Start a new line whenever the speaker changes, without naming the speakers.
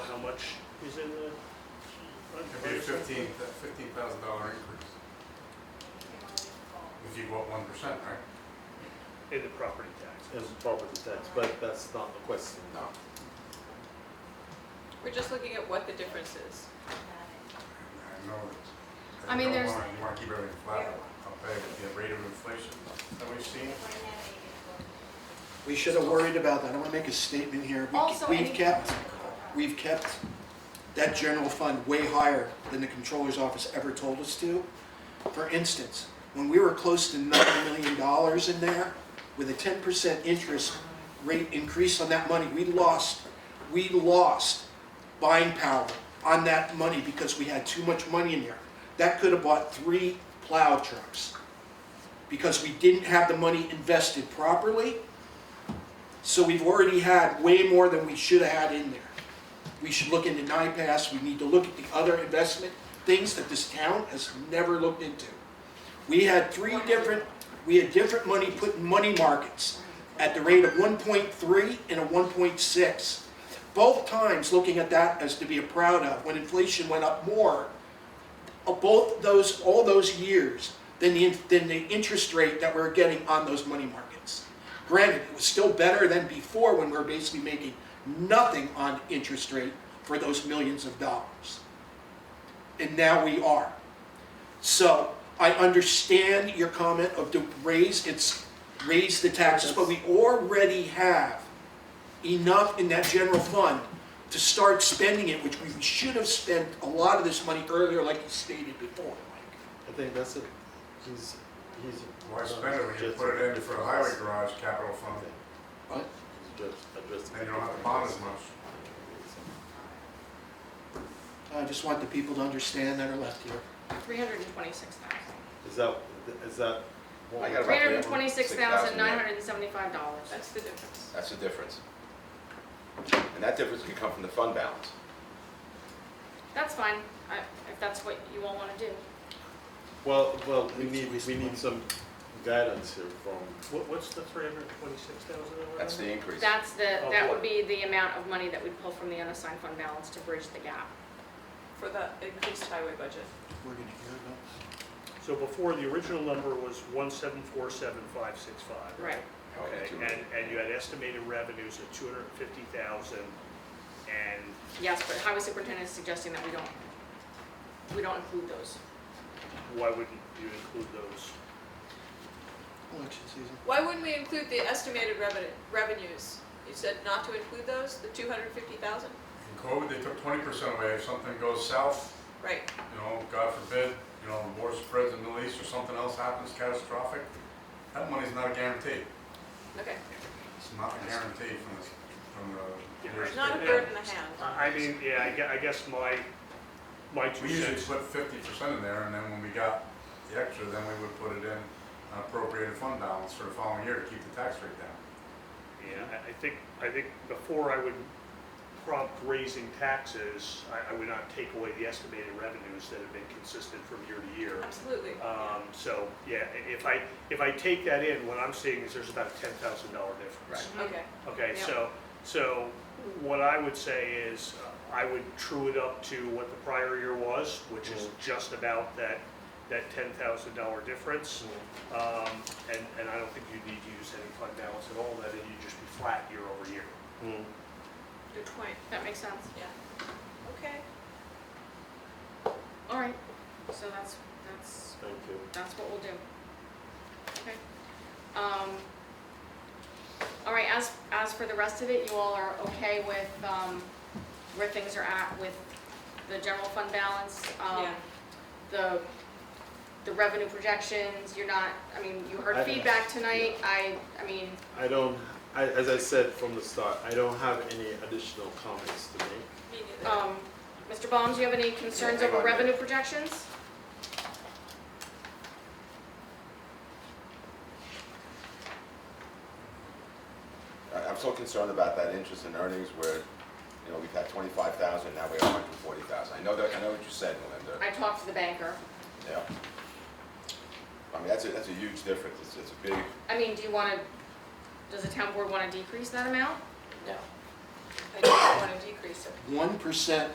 much is in the
It'd be a
budget?
fifteen, fifteen thousand dollar increase. If you go up one percent, right?
In the property tax.
as property tax, but that's not the question now.
We're just looking at what the difference is.
I know that.
I mean,
you don't
there's-
wanna- You wanna keep everything flat, I'll pay with the rate of inflation that we've seen.
We should have worried about that. I want to make a statement here. We-
Also,
We've
any-
kept, we've kept that general fund way higher than the controller's office ever told us to. For instance, when we were close to nine million dollars in there, with a ten percent interest rate increase on that money, we lost, we lost buying power on that money because we had too much money in there. That could have bought three plow trucks because we didn't have the money invested properly. So we've already had way more than we should have had in there. We should look into NIPAS, we need to look at the other investment things that this town has never looked into. We had three different, we had different money put in money markets at the rate of one point three and a one point six. Both times looking at that as to be proud of, when inflation went up more, of both those, all those years, than the, than the interest rate that we're getting on those money markets. Granted, it was still better than before when we we're basically making nothing on interest rate for those millions of dollars. And now we are. So I understand your comment of to raise, it's raise the taxes, but we already have enough in that general fund to start spending it, which we should have spent a lot of this money earlier, like you stated before, Mike.
I think that's it. He's, he's.
Why spend it when you put it in for the highway garage capital fund,
What?
Just addressing.
then you don't have to bond as much.
I just want the people to understand that are left here.
Three hundred and twenty-six thousand.
Is that, is that? what
I
we-
got
Three
about
hundred and twenty-six thousand, nine hundred and seventy-five dollars. That's the difference.
That's the difference. And that difference can come from the fund balance.
That's fine, I, if that's what you all wanna do.
Well, well, we
It's a
need,
waste
we
of
need
money.
some guidance here from,
What, what's the three hundred and twenty-six thousand dollar?
That's the increase.
That's the,
Oh,
that
boy.
would be the amount of money that we pull from the unassigned fund balance to bridge the gap.
for the increased highway budget.
We're gonna hear about
So before, the original number was one seven four seven five six five.
Right.
Oh,
Okay,
Two
and,
million.
and you had estimated revenues of two hundred and fifty thousand, and
Yes, but highway superintendent is suggesting that we don't, we don't include those.
why wouldn't you include those?
election season.
Why wouldn't we include the estimated revenue, revenues? You said not to include those, the two hundred fifty thousand?
In COVID, they took twenty percent away, if something goes south,
Right,
you know, God forbid, you know, war spreads in the Middle East or something else happens catastrophic, that money's not a guarantee.
okay.
It's not a guarantee from this, from the.
Yeah,
It's not a bird in the hand.
I I mean, yeah, I gue- I guess my, my two
We usually
cents.
put fifty percent in there, and then when we got the extra, then we would put it in an appropriated fund balance for the following year to keep the tax rate down.
Yeah, I- I think, I think before I would prompt raising taxes, I, I would not take away the estimated revenues that have been consistent from year to year.
Absolutely.
Um, so, yeah, i- if I, if I take that in, what I'm seeing is there's about a ten thousand dollar difference.
Okay,
Okay,
Yeah.
so, so what I would say is, uh, I would true it up to what the prior year was, which is just about that, that ten thousand dollar difference. Um, and, and I don't think you need to use any fund balance at all, that you'd just be flat year over year.
Hmm.
good point,
That makes sense.
yeah. Okay.
All right, so that's, that's
thank you.
That's what we'll do. Okay. Um, all right, as, as for the rest of it, you all are okay with, um, where things are at with the general fund balance? um,
Yeah.
The, the revenue projections, you're not, I mean, you
I-
heard feedback tonight, I, I mean,
I don't, I, as I said from the start, I don't have any additional comments to make.
Me neither.
um, Mr. Baum, do you have any concerns
Yeah, I
over
got it.
revenue projections?
I- I'm so concerned about that interest and earnings where, you know, we've had twenty-five thousand, now we have hundred and forty thousand. I know that, I know what you said, Melinda,
I talked to the banker.
yeah. I mean, that's a, that's a huge difference, it's, it's a big,
I mean, do you wanna, does the town board wanna decrease that amount?
No. I don't want to decrease it.
One percent